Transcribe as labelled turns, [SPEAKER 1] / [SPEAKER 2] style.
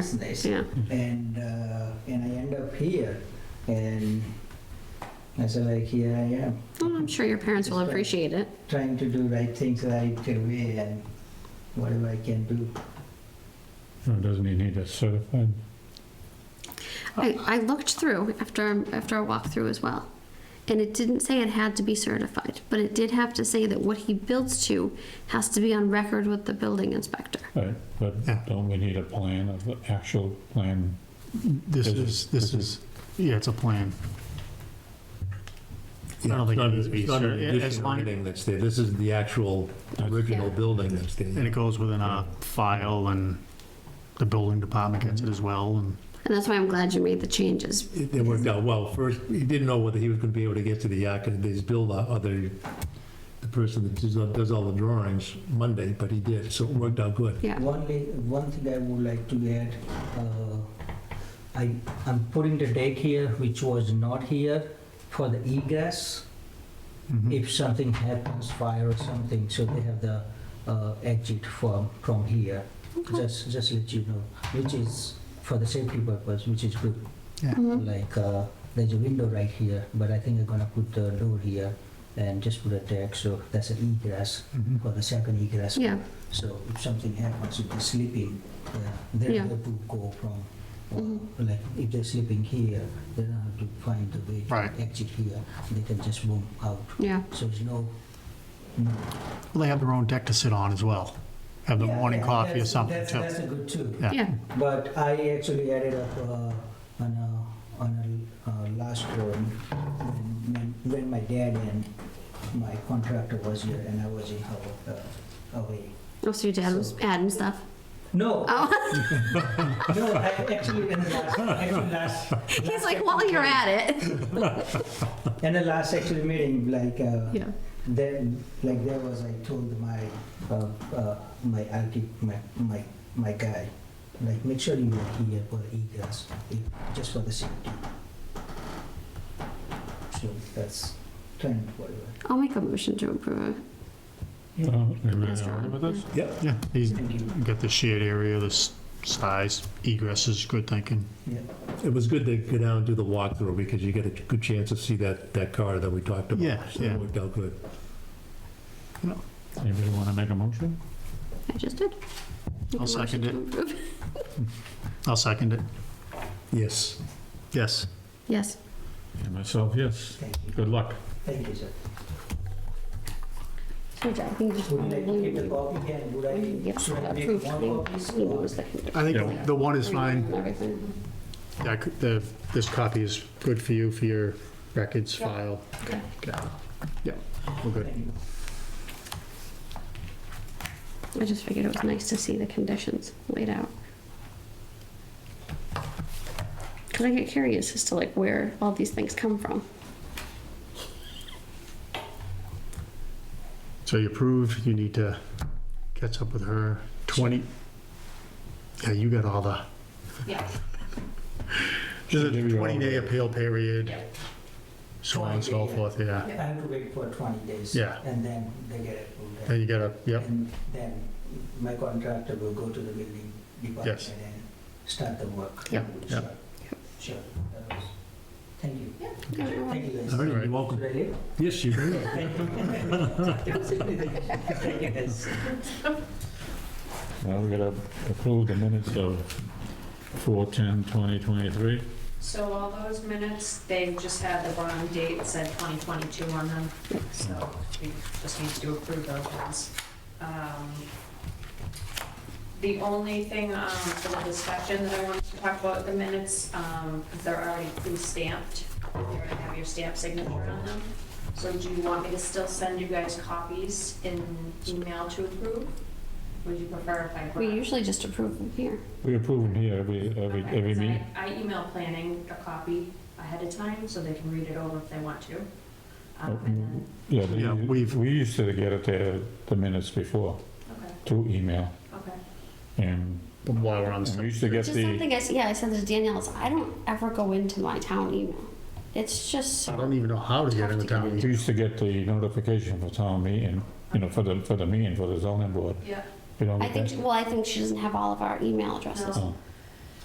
[SPEAKER 1] business.
[SPEAKER 2] Yeah.
[SPEAKER 1] And, uh, and I end up here, and I said, like, here I am,
[SPEAKER 2] Well, I'm sure your parents will
[SPEAKER 1] That's right.
[SPEAKER 2] appreciate it.
[SPEAKER 1] trying to do right things right away and whatever I can do.
[SPEAKER 3] Or Doesn't he need a certified?
[SPEAKER 4] Oh.
[SPEAKER 2] I, I looked through after after our walkthrough as well, and it didn't say it had to be certified, but it did have to say that what he builds to has to be on record with the building inspector.
[SPEAKER 3] Right, but
[SPEAKER 4] Yeah.
[SPEAKER 3] don't we need a plan, of the actual plan?
[SPEAKER 4] This
[SPEAKER 3] This
[SPEAKER 4] is, this is, yeah, it's a plan. I
[SPEAKER 5] Yeah,
[SPEAKER 4] don't
[SPEAKER 5] it's
[SPEAKER 4] think it
[SPEAKER 5] not,
[SPEAKER 4] needs to be
[SPEAKER 5] it's not an
[SPEAKER 4] certi- as
[SPEAKER 5] additional
[SPEAKER 4] long-
[SPEAKER 5] building that's there, this is the actual original
[SPEAKER 2] Yeah.
[SPEAKER 5] building that's
[SPEAKER 4] And
[SPEAKER 5] there.
[SPEAKER 4] it goes within our file and the building department gets it as well and
[SPEAKER 2] And that's why I'm glad you made the changes.
[SPEAKER 5] It it worked out well, first, he didn't know whether he was gonna be able to get to the architect, his builder, or the, the person that does all- does all the drawings Monday, but he did, so it worked out good.
[SPEAKER 2] Yeah.
[SPEAKER 1] Only, one thing I would like to add, uh, I, I'm putting the deck here, which was not here, for the egress,
[SPEAKER 4] Mhm.
[SPEAKER 2] Mm-hmm.
[SPEAKER 1] if something happens, fire or something, so they have the uh, exit from, from here. Just, just let you know, which is for the safety purpose, which is good.
[SPEAKER 2] Mhm.
[SPEAKER 1] Like, uh, there's a window right here, but I think I'm gonna put the door here and just put a deck, so that's an egress
[SPEAKER 4] Mhm.
[SPEAKER 1] for the second egress.
[SPEAKER 2] Yeah.
[SPEAKER 1] So if something happens, if they're sleeping, yeah, they
[SPEAKER 2] Yeah.
[SPEAKER 1] don't have to go from, uh,
[SPEAKER 2] Mhm.
[SPEAKER 1] like, if they're sleeping here, they don't have to find the way
[SPEAKER 4] Right.
[SPEAKER 1] to exit here. They can just boom out.
[SPEAKER 2] Yeah.
[SPEAKER 1] So there's no, no.
[SPEAKER 4] Well, they have their own deck to sit on as well. Have the
[SPEAKER 1] Yeah,
[SPEAKER 4] morning
[SPEAKER 1] yeah,
[SPEAKER 4] coffee or
[SPEAKER 1] that's-
[SPEAKER 4] something
[SPEAKER 1] that's-
[SPEAKER 4] too.
[SPEAKER 1] That's a good too.
[SPEAKER 4] Yeah.
[SPEAKER 2] Yeah.
[SPEAKER 1] But I actually added up uh, on a, on a uh, last one, when- when, when my dad and my contractor was here and I was in Hawaii. Uh, away.
[SPEAKER 2] Oh, so your dad was
[SPEAKER 1] So-
[SPEAKER 2] adding stuff.
[SPEAKER 1] No,
[SPEAKER 2] Oh,
[SPEAKER 1] no, I actually, in the last, actually last,
[SPEAKER 2] he's like, while you're at it.
[SPEAKER 1] in the last actual meeting, like, uh,
[SPEAKER 2] Yeah.
[SPEAKER 1] Then, like there was, I told my, uh, uh, my archi, my, my, my guy, like, make sure you are here for the egress, if- just for the safety. So that's trend whatever.
[SPEAKER 2] I'll make a motion to approve it.
[SPEAKER 3] Oh, Everybody
[SPEAKER 2] That's
[SPEAKER 3] all right with
[SPEAKER 2] right.
[SPEAKER 3] this?
[SPEAKER 5] Yep.
[SPEAKER 4] Yeah, he's
[SPEAKER 1] Thank you.
[SPEAKER 4] got the shared area, the s- size, egress is good thinking.
[SPEAKER 5] It was good to go down and do the walkthrough, because you get a good chance to see that, that car that we talked about.
[SPEAKER 4] Yeah,
[SPEAKER 5] So
[SPEAKER 4] yeah.
[SPEAKER 5] it worked out good.
[SPEAKER 3] Anybody want to make a motion?
[SPEAKER 2] I just did. Make a
[SPEAKER 4] I'll
[SPEAKER 2] motion
[SPEAKER 4] second
[SPEAKER 2] to
[SPEAKER 4] it.
[SPEAKER 2] approve.
[SPEAKER 4] I'll second it.
[SPEAKER 5] Yes.
[SPEAKER 4] Yes.
[SPEAKER 2] Yes.
[SPEAKER 3] And myself, yes.
[SPEAKER 1] Thank you,
[SPEAKER 3] Good luck.
[SPEAKER 1] thank you, sir.
[SPEAKER 2] Good job. I think you
[SPEAKER 1] Would you like to keep the
[SPEAKER 2] probably-
[SPEAKER 1] copy and would I,
[SPEAKER 2] Yes,
[SPEAKER 1] should I make
[SPEAKER 2] approved.
[SPEAKER 1] one copy?
[SPEAKER 2] He
[SPEAKER 1] or-
[SPEAKER 2] knows that he did.
[SPEAKER 4] I
[SPEAKER 3] Yeah.
[SPEAKER 4] think the one is
[SPEAKER 2] And
[SPEAKER 4] fine.
[SPEAKER 2] everything.
[SPEAKER 4] Yeah, I could- the- this copy is good for you, for your records
[SPEAKER 2] Yeah.
[SPEAKER 4] file.
[SPEAKER 2] Okay.
[SPEAKER 4] Yeah, Yeah, we're good.
[SPEAKER 1] Thank you.
[SPEAKER 2] I just figured it was nice to see the conditions laid out. Cause I get curious as to like where all these things come from.
[SPEAKER 4] So you approve, you need to catch up with her. 20, yeah, you got all the,
[SPEAKER 2] Yeah.
[SPEAKER 4] there's a
[SPEAKER 3] Give you all
[SPEAKER 4] 20-day
[SPEAKER 3] the-
[SPEAKER 4] appeal period, so on and so
[SPEAKER 1] 20 day,
[SPEAKER 4] forth, yeah.
[SPEAKER 1] I have to wait for twenty days.
[SPEAKER 4] Yeah.
[SPEAKER 1] And then they get approved.
[SPEAKER 4] Then you gotta, yep,
[SPEAKER 1] And then my contractor will go to the building department
[SPEAKER 4] Yes.
[SPEAKER 1] and start the work.
[SPEAKER 4] Yep,
[SPEAKER 1] Sure.
[SPEAKER 4] yep.
[SPEAKER 1] Sure. That was- Thank you.
[SPEAKER 2] Thank
[SPEAKER 1] Thank you guys.
[SPEAKER 5] All right,
[SPEAKER 4] All right.
[SPEAKER 5] you're welcome.
[SPEAKER 1] Should I leave?
[SPEAKER 5] Yes, you did.
[SPEAKER 1] Thank you. Thank you guys.
[SPEAKER 3] Now we gotta approve the minutes of 4/10/2023.
[SPEAKER 6] So all those minutes, they just had the wrong date, it said 2022 on them, so we just need to approve those ones. Um, The only thing um, for the discussion that I wanted to talk about, the minutes, um, they're already pre-stamped, they're going to have your stamp signature on them. So do you want me to still send you guys copies in email to approve? Would you prefer if I brought?
[SPEAKER 2] We usually just approve them here.
[SPEAKER 3] We approve them here every, every,
[SPEAKER 6] Okay,
[SPEAKER 3] every
[SPEAKER 6] so I-
[SPEAKER 3] meeting.
[SPEAKER 6] I email planning a copy ahead of time, so they can read it over if they want to. Um, and then-
[SPEAKER 3] Yeah,
[SPEAKER 4] Yeah,
[SPEAKER 3] they-
[SPEAKER 4] we've-
[SPEAKER 3] we used to get it the, the minutes before
[SPEAKER 6] Okay,
[SPEAKER 3] through email.
[SPEAKER 6] okay.
[SPEAKER 3] And
[SPEAKER 4] while we're on
[SPEAKER 3] and we
[SPEAKER 4] the
[SPEAKER 3] used to get
[SPEAKER 2] Which is
[SPEAKER 3] the,
[SPEAKER 2] something I, s- yeah, I said to Danielle, is I don't ever go into my town email. It's just
[SPEAKER 4] I
[SPEAKER 2] so
[SPEAKER 4] don't even know how to get in the town.
[SPEAKER 3] we used to get the notification for town meeting, you know, for the, for the meeting, for the zoning board.
[SPEAKER 6] Yeah,
[SPEAKER 3] We don't
[SPEAKER 2] I
[SPEAKER 3] get
[SPEAKER 2] think,
[SPEAKER 3] that.
[SPEAKER 2] well, I think she doesn't have all of our email addresses.
[SPEAKER 3] Oh,